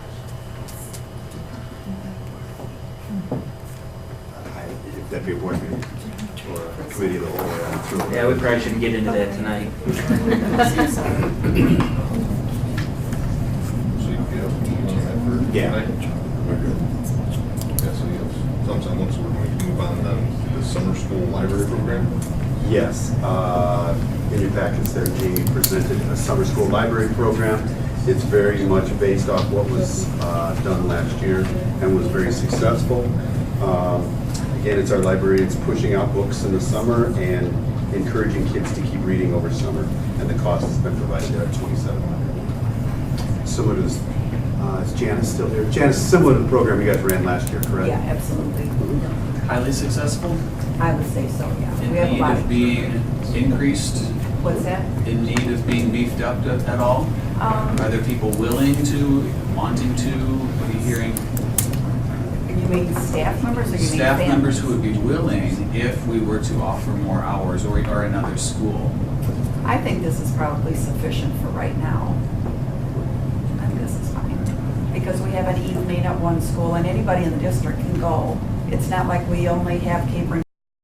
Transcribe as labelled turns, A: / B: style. A: deputy board meeting or a committee of the whole way on through.
B: Yeah, we probably shouldn't get into that tonight.
C: So you get up and you have for.
A: Yeah.
C: We're good. Yeah, so you have something else we're going to move on then, the summer school library program.
A: Yes, uh, in your packets there, Jamie presented a summer school library program. It's very much based off what was uh, done last year and was very successful. Um, Again, it's our library, it's pushing out books in the summer and encouraging kids to keep reading over summer. And the cost has been provided there at twenty-seven hundred. Similar to, this- uh, is Janice still here? Janice, similar to the program you guys ran last year, correct?
D: Yeah, absolutely.
E: highly successful.
D: I would say so, yeah.
E: In
D: We have a
E: need
D: lot
E: of
D: of,
E: being increased,
D: what's that?
E: in need of being beefed up at at all? Are
D: Um,
E: there people willing to, wanting to, what are you hearing?
D: You mean staff members or you mean?
E: Staff
D: families?
E: members who would be willing if we were to offer more hours or, or another school?
D: I think this is probably sufficient for right now. I think this is fine, because we have an evening at one school, and anybody in the district can go. It's not like we only have Capering